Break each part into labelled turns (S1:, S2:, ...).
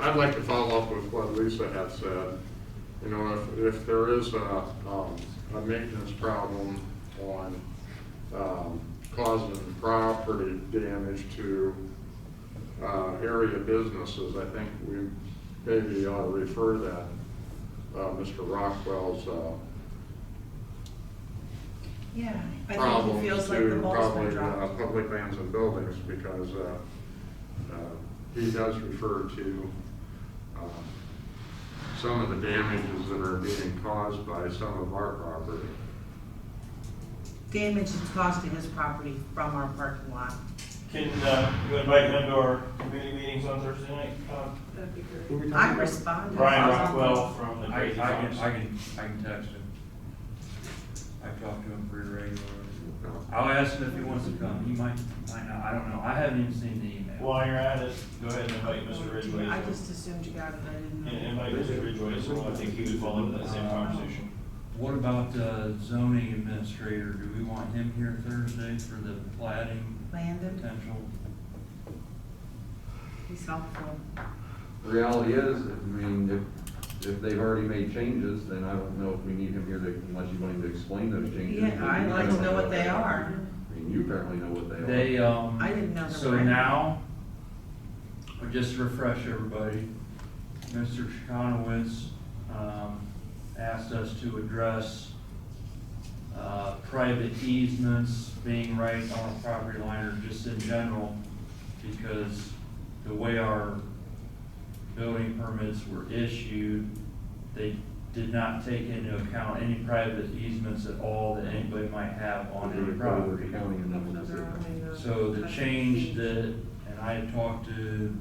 S1: I'd like to follow up with what Lisa had said. You know, if, if there is a, um, a maintenance problem on, um, causing property damage to, uh, area businesses, I think we maybe ought to refer that, uh, Mr. Rockwell's, uh,
S2: Yeah, I think
S1: problem
S2: he feels like the
S1: to
S2: ball's been
S1: probably, uh,
S2: dropped.
S1: public lands and buildings, because, uh, uh, he does refer to, um, some of the damages that are being caused by some of our property.
S2: Damage is caused to his property from our parking lot.
S3: Can, uh, you invite him to our committee meetings on Thursday night? Um,
S4: That'd be great.
S5: Who are we
S2: I
S5: talking about?
S2: responded.
S3: Brian Rockwell from the
S5: I, I
S3: Crazy
S5: can,
S3: Times.
S5: I can, I can text him. I've talked to him pretty regularly.
S1: you know.
S5: I'll ask him if he wants to come, he might, might not, I don't know, I haven't even seen the email.
S3: While you're at it, go ahead and invite Mr. Ridgway.
S2: I
S3: as well.
S2: just assumed you got it, I didn't
S3: And
S2: know.
S3: invite Mr. Ridgway as well. I think he would fall into that same conversation.
S5: What about the zoning administrator, do we want him here Thursday for the plating
S2: Landon,
S5: potential?
S2: he's helpful.
S6: The Reality is, I mean, if, if they've already made changes, then I don't know if we need him here to, unless you want him to explain those changes.
S2: Yeah, I'd like to know what they are.
S6: I mean, you apparently know what they
S5: They,
S6: are.
S5: um.
S2: I didn't know the
S5: So
S2: brand.
S5: now, uh, just to refresh everybody, Mr. Chikanowitz, um, asked us to address, uh, private easements being right on a property line or just in general, because the way our building permits were issued, they did not take into account any private easements at all that anybody might have on
S6: Under
S5: any
S6: the Collier
S5: property.
S6: County and then that's it.
S5: So the change that, and I had talked to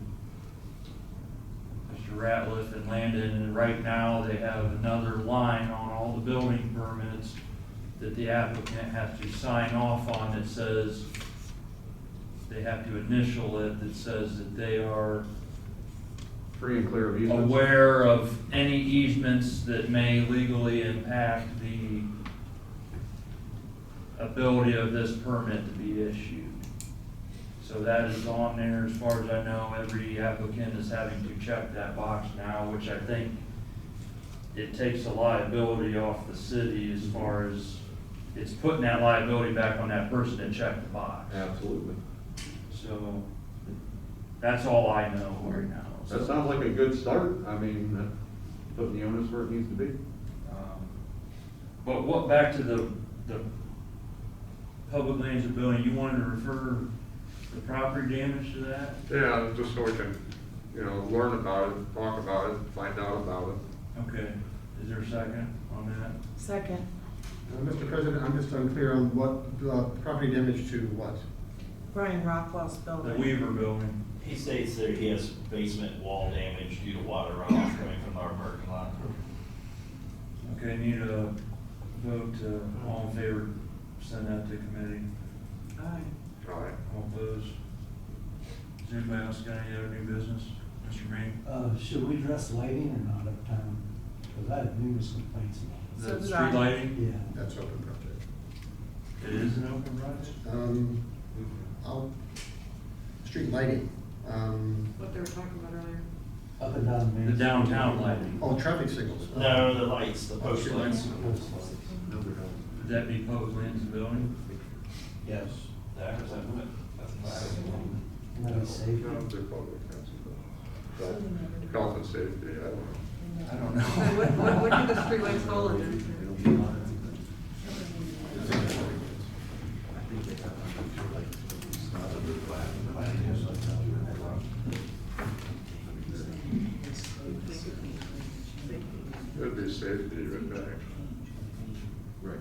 S5: Mr. Ratliff and Landon, and right now they have another line on all the building permits that the applicant has to sign off on that says, they have to initial it that says that they are
S6: Free and clear of easements.
S5: aware of any easements that may legally impact the ability of this permit to be issued. So that is on there, as far as I know, every applicant is having to check that box now, which I think it takes the liability off the city as far as, it's putting that liability back on that person to check the box.
S6: Absolutely.
S5: So, that's all I know right now. So-
S6: That sounds like a good start. I mean, that- putting the onus where it needs to be.
S5: Um, But what, back to the, the public lands and building, you wanted to refer the property damage to that?
S1: Yeah, just so we can, you know, learn about it, talk about it, find out about it.
S5: Okay, is there a second on that?
S2: Second,
S7: Uh, Mr. President, I'm just unclear on what, uh, property damage to what?
S2: Brian Rockwell's building.
S5: The Weaver building,
S3: He states that he has basement wall damage due to water runoff coming from our parking lot.
S5: okay, need a vote, uh, all in favor, send that to committee,
S2: Aye.
S1: All right.
S5: all opposed? Does anybody else got any other new business, Mr. Green?
S8: Uh, should we address lighting or not uptown? Because I had numerous complaints about
S2: So
S5: The
S2: did I.
S5: street lighting,
S8: it. Yeah.
S7: That's open project.
S5: it is an open project?
S7: Um, I'll, street lighting, um,
S4: What they were talking about earlier.
S8: Up and down Main.
S5: The
S8: Street.
S5: downtown lighting,
S7: oh, traffic signals.
S3: No, the lights, the post
S7: Street lights.
S3: lights.
S8: Those lights.
S5: would that be public lands and building?
S8: Yes.
S3: That was- that's-
S8: And then safety.
S1: No, they're public, that's about- but Health and safety, I don't know.
S5: I don't know.
S4: So What, what, what do the streetlights fall under?
S1: It'd be safety, but, uh,
S6: Right.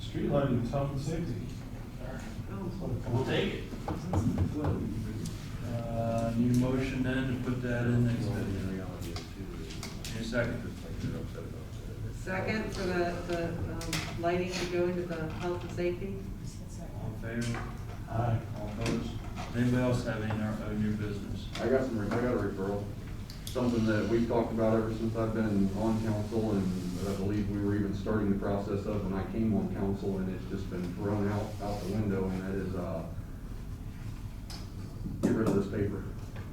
S3: Street lighting is health and safety. We'll take it.
S5: Uh, Need a motion then to put that in next video? Need a second?
S4: Second, for the, the, um, lighting to go into the health and safety?
S5: All in favor?
S8: Aye.
S5: All opposed? Anybody else have any uh, new business?
S6: I got some, I got a referral, something that we've talked about ever since I've been on council, and that I believe we were even starting the process of when I came on council, and it's just been thrown out, out the window, and that is, uh, get rid of this paper.